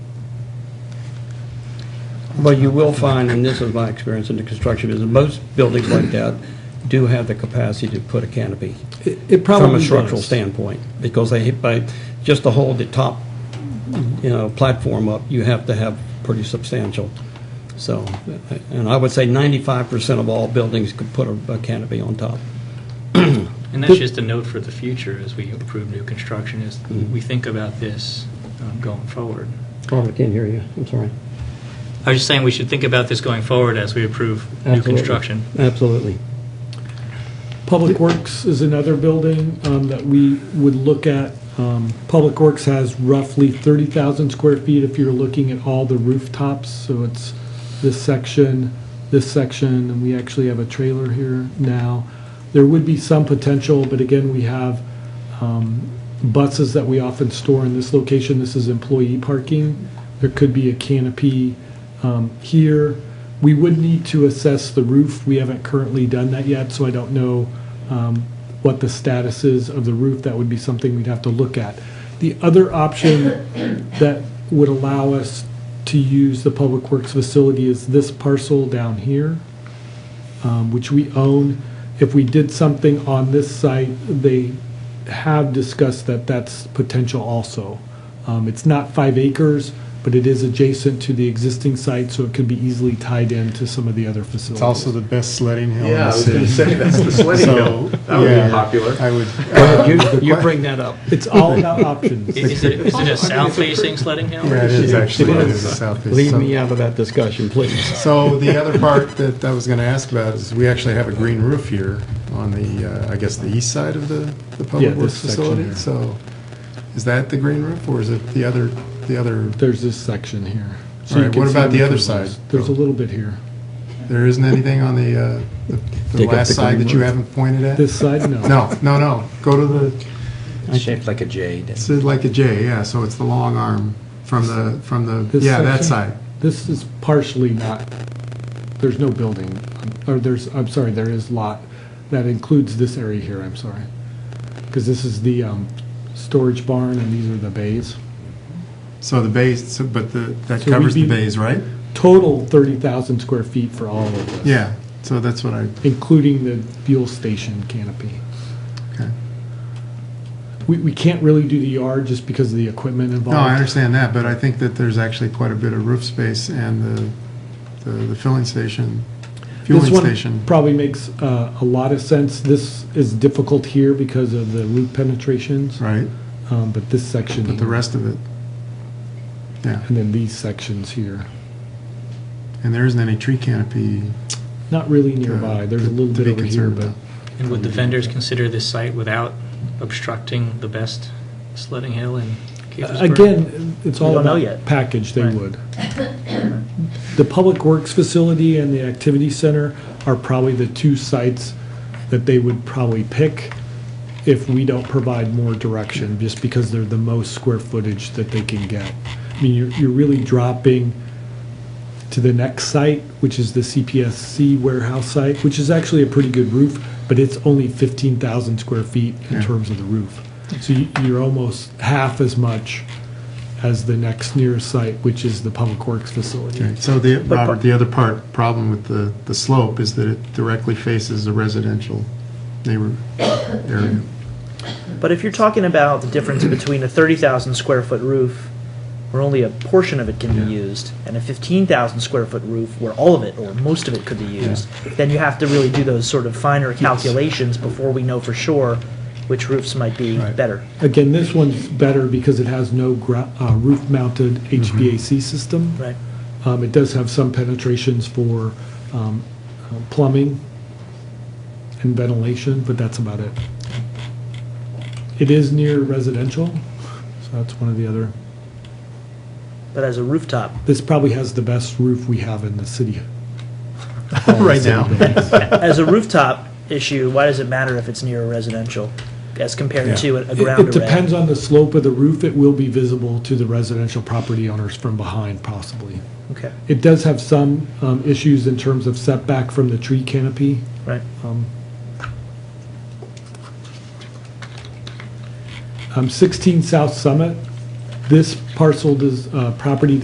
But you will find, and this is my experience in the construction business, most buildings like that do have the capacity to put a canopy. It- It probably From a structural does. standpoint, because they, by, just to hold the top, you know, platform up, you have to have pretty substantial. So, and I would say ninety-five percent of all buildings could put a a canopy on top. And that's just a note for the future as we approve new construction, is Mm-hmm. we think about this um, going forward. Robert, I can't hear you, I'm sorry. I was just saying, we should think about this going forward as we approve new Absolutely. construction. Absolutely. Public Works is another building um, that we would look at. Um, Public Works has roughly 30,000 square feet if you're looking at all the rooftops. So it's this section, this section, and we actually have a trailer here now. There would be some potential, but again, we have um, buses that we often store in this location. This is employee parking. There could be a canopy um, here. We would need to assess the roof. We haven't currently done that yet, so I don't know um, what the status is of the roof. That would be something we'd have to look at. The other option that would allow us to use the Public Works facility is this parcel down here um, which we own. If we did something on this site, they have discussed that that's potential also. Um, It's not five acres, but it is adjacent to the existing site, so it could be easily tied into some of the other It's also facilities. the best sledding hill in Yeah, I the was going city. to say, that's the sledding hill. That would yeah, be popular. I would, You bring that up. It's all about options. I- Is it, is it a south-facing sledding hill? yeah, it is actually, it is the southeast. Leave side. me out of that discussion, please. So the other part that I was going to ask about is we actually have a green roof here on the, uh, I guess, the east side of the, the Yeah, public this works section facility. here. So is that the green roof or is it the other, the other, There's this section here. So All you right, can what see about the which other ones. side? There's a little bit here. there isn't anything on the, uh, the- the Take up the last side green that you roof. haven't pointed at? This side, no. No, no, no. Go to the, Shaped like a J. it's like a J, yeah, so it's the long arm from the, from the, This yeah, that section? side. This is partially not, there's no building, or there's, I'm sorry, there is lot. That includes this area here, I'm sorry. Because this is the um, storage barn and these are the bays. So the bays, so- but the, that So we'd covers the be- bays, right? Total 30,000 square feet for all of this. Yeah, so that's what I, Including the fuel station canopy. okay. We, we can't really do the yard just because of the equipment involved. No, I understand that, but I think that there's actually quite a bit of roof space and the, the- the filling station, This fueling one station. Probably makes uh, a lot of sense. This is difficult here because of the roof penetrations. Right, Um, But this section but the here, rest of it, yeah, and then these sections here, and there isn't any tree canopy. not really nearby, there's a little to bit be over here, concerned but about. And would the vendors consider this site without obstructing the best sledding hill in Gaithersburg? uh, again, it's all don't know about yet. package, they Right. would. The Public Works Facility and the Activity Center are probably the two sites that they would probably pick if we don't provide more direction, just because they're the most square footage that they can get. I mean, you're, you're really dropping to the next site, which is the CPSC warehouse site, which is actually a pretty good roof, but it's only 15,000 square feet in Yeah. terms of the roof. So you- you're almost half as much as the next nearest site, which is the Public Works Okay, facility. So the, Robert, the other part, problem with the, the slope is that it directly faces a residential neighbor area. But if you're talking about the difference between a 30,000 square foot roof, where only a portion of it can be used, and a 15,000 square foot roof, where all of it or most of it could be used, then you have to really do those sort of finer calculations before we know for sure which roofs might be Right. better. Again, this one's better because it has no gra- uh, roof-mounted HVAC system. Right. Um, It does have some penetrations for um, uh, plumbing and ventilation, but that's about it. It is near residential, so that's one of the other, But as a rooftop, this probably has the best roof we have in the city. Right now. as a rooftop issue, why does it matter if it's near a residential as compared Yeah. to a, a It- ground It array? depends on the slope of the roof. It will be visible to the residential property owners from behind possibly. Okay, It does have some um, issues in terms of setback from the tree canopy. right. Um, Um, 16 South Summit, this parcel does, uh, property